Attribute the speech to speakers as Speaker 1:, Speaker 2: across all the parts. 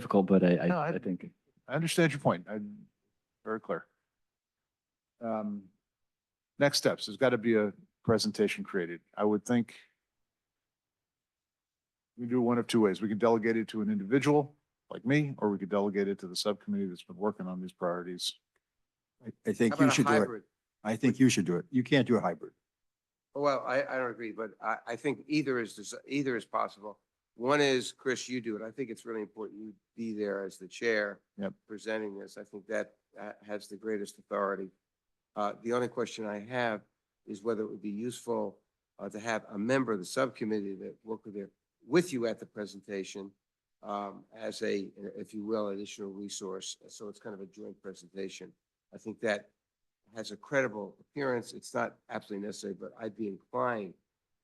Speaker 1: difficult, but I,
Speaker 2: No,
Speaker 1: I,
Speaker 2: I-
Speaker 1: I think.
Speaker 2: I understand your point. I'm very clear. Um, Next steps, there's got to be a presentation created. I would think we do one of two ways. We could delegate it to an individual like me, or we could delegate it to the subcommittee that's been working on these priorities.
Speaker 3: I- I think
Speaker 4: How
Speaker 3: you
Speaker 4: about a
Speaker 3: should do it.
Speaker 4: hybrid?
Speaker 3: I think you should do it. You can't do a hybrid.
Speaker 4: Well, I, I don't agree, but I, I think either is, des- either is possible. One is, Chris, you do it. I think it's really important you be there as the chair.
Speaker 2: Yep.
Speaker 4: Presenting this. I think that uh, has the greatest authority. Uh, the only question I have is whether it would be useful uh, to have a member of the subcommittee that worked with there with you at the presentation um, as a, if you will, additional resource. So it's kind of a joint presentation. I think that has a credible appearance. It's not absolutely necessary, but I'd be inclined,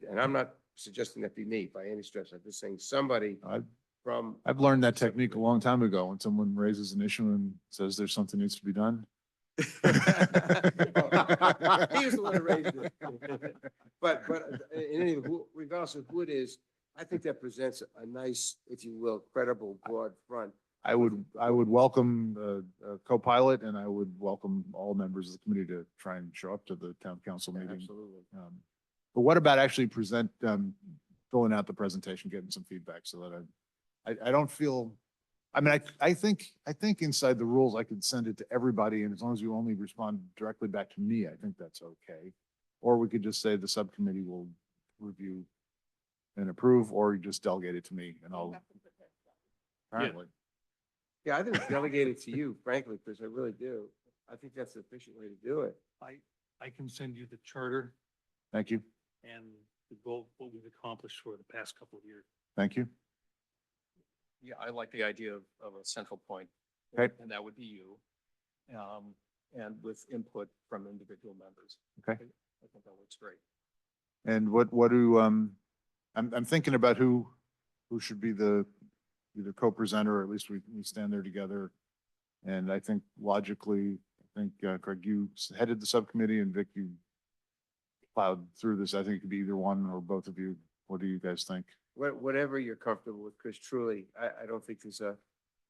Speaker 4: and I'm not suggesting that be me by any stretch. I'm just saying somebody
Speaker 2: I-
Speaker 4: from,
Speaker 2: I've learned that technique a long time ago. When someone raises an issue and says there's something needs to be done.
Speaker 4: He was the one who raised it. but, but in any, who- regardless of who it is, I think that presents a nice, if you will, credible, broad front.
Speaker 2: I would, I would welcome uh, a, a co-pilot and I would welcome all members of the committee to try and show up to the town council meeting.
Speaker 4: Absolutely.
Speaker 2: Um, But what about actually present, um, filling out the presentation, getting some feedback so that I, I, I don't feel, I mean, I, I think, I think inside the rules, I could send it to everybody and as long as you only respond directly back to me, I think that's okay. Or we could just say the subcommittee will review and approve, or you just delegate it to me and I'll, apparently.
Speaker 4: Yeah, I think it's delegated to you, frankly, Chris, I really do. I think that's the efficient way to do it.
Speaker 5: I, I can send you the charter
Speaker 2: Thank you,
Speaker 5: and the goal, what we've accomplished for the past couple of years.
Speaker 2: thank you.
Speaker 6: Yeah, I like the idea of, of a central point.
Speaker 2: Okay.
Speaker 6: And that would be you. Um, and with input from individual members.
Speaker 2: Okay.
Speaker 6: I think that works great.
Speaker 2: And what, what do, um, I'm, I'm thinking about who, who should be the, either co-presenter, or at least we, we stand there together. And I think logically, I think uh, Craig, you s- headed the subcommittee and Vic, you plowed through this. I think it could be either one or both of you. What do you guys think?
Speaker 4: Wha- whatever you're comfortable with, Chris, truly, I, I don't think there's a,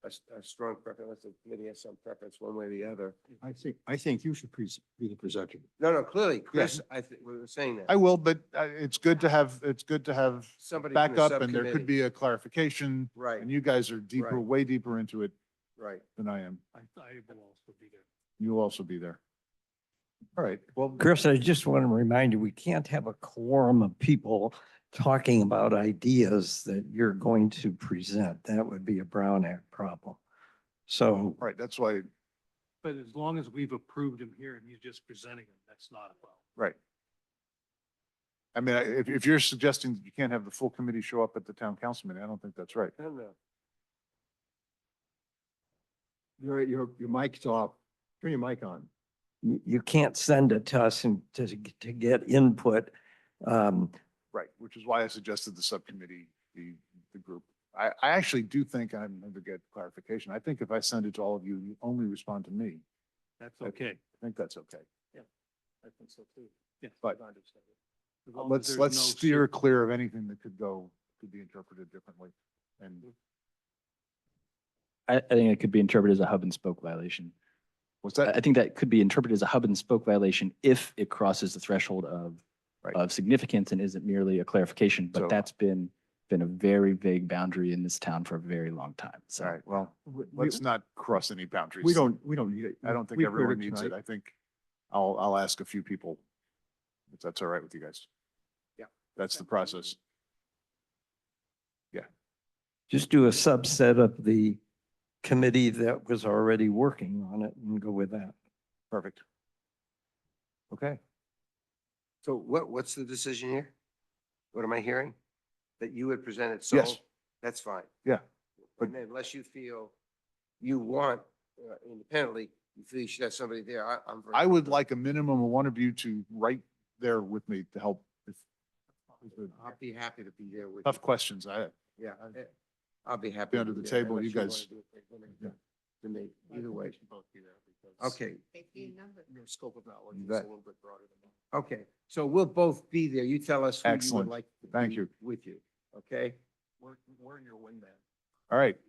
Speaker 4: a, s- a strong preference, unless the committee has some preference one way or the other.
Speaker 3: I think, I think you should pres- be the presenter.
Speaker 4: No, no, clearly, Chris, I think, we were saying that.
Speaker 2: I will, but uh, it's good to have, it's good to have
Speaker 4: Somebody from the
Speaker 2: backup and there could
Speaker 4: subcommittee.
Speaker 2: be a clarification.
Speaker 4: Right,
Speaker 2: And you guys are deeper,
Speaker 4: Right.
Speaker 2: way deeper into it
Speaker 4: right.
Speaker 2: than I am.
Speaker 5: I, I will also be there.
Speaker 2: You'll also be there. All right, well.
Speaker 7: Chris, I just want to remind you, we can't have a quorum of people talking about ideas that you're going to present. That would be a Brown Act problem. So
Speaker 2: Right, that's why,
Speaker 5: But as long as we've approved him here and he's just presenting him, that's not a problem.
Speaker 2: right. I mean, I- if, if you're suggesting that you can't have the full committee show up at the town council meeting, I don't think that's right.
Speaker 4: I don't know.
Speaker 3: Your, your, your mic's off. Turn your mic on.
Speaker 7: you, you can't send it to us and to, to get input. Um,
Speaker 2: Right, which is why I suggested the subcommittee, the, the group. I, I actually do think, and I'm going to get clarification, I think if I send it to all of you, you only respond to me.
Speaker 5: That's
Speaker 2: Okay.
Speaker 5: okay.
Speaker 2: I think that's okay.
Speaker 6: I think so too.
Speaker 5: Yeah.
Speaker 2: But-
Speaker 6: I understand it.
Speaker 5: As long as
Speaker 2: Let's,
Speaker 5: there's
Speaker 2: let's
Speaker 5: no
Speaker 2: steer clear of anything that could go, could be interpreted differently. And
Speaker 5: Mm-hmm.
Speaker 1: I, I think it could be interpreted as a hub and spoke violation.
Speaker 2: what's
Speaker 1: I, I
Speaker 2: that?
Speaker 1: think that could be interpreted as a hub and spoke violation if it crosses the threshold of
Speaker 2: Right.
Speaker 1: of significance and isn't merely a clarification,
Speaker 2: So-
Speaker 1: but that's been, been a very vague boundary in this town for a very long time. So.
Speaker 2: All right, well, let's not cross any boundaries.
Speaker 3: Uh, We don't, we don't need it.
Speaker 2: I don't think
Speaker 3: We've heard
Speaker 2: everyone needs it.
Speaker 3: tonight.
Speaker 2: I think I'll, I'll ask a few people. If that's all right with you guys.
Speaker 4: Yeah.
Speaker 2: That's the process.
Speaker 7: just do a subset of the committee that was already working on it and go with that.
Speaker 2: Perfect. Okay,
Speaker 4: So what, what's the decision here? What am I hearing? That you had presented sole?
Speaker 2: Yes.
Speaker 4: That's fine.
Speaker 2: Yeah, but-
Speaker 4: And then unless you feel you want uh, independently, you feel you should have somebody there, I, I'm. very
Speaker 2: I would
Speaker 4: comfortable.
Speaker 2: like a minimum of one of you to write there with me to help. if- if the
Speaker 4: I'd be happy to be there with. you.
Speaker 2: Tough questions, I,
Speaker 4: Yeah, I- I'll be happy.
Speaker 2: Be
Speaker 4: to
Speaker 2: under
Speaker 4: do
Speaker 2: the
Speaker 4: that,
Speaker 2: table,
Speaker 4: unless
Speaker 2: you
Speaker 4: wanna
Speaker 2: guys-
Speaker 4: do it like women
Speaker 2: Yeah.
Speaker 4: To me, either way. Okay,
Speaker 6: Your scope of knowledge
Speaker 4: You
Speaker 6: is a
Speaker 4: bet.
Speaker 6: little bit broader than that.
Speaker 4: okay. So we'll both be there. You tell us who you would
Speaker 2: Excellent.
Speaker 4: like. to
Speaker 2: Thank
Speaker 4: be
Speaker 2: you.
Speaker 4: With you, okay?
Speaker 6: We're, we're your wingman.
Speaker 2: all right,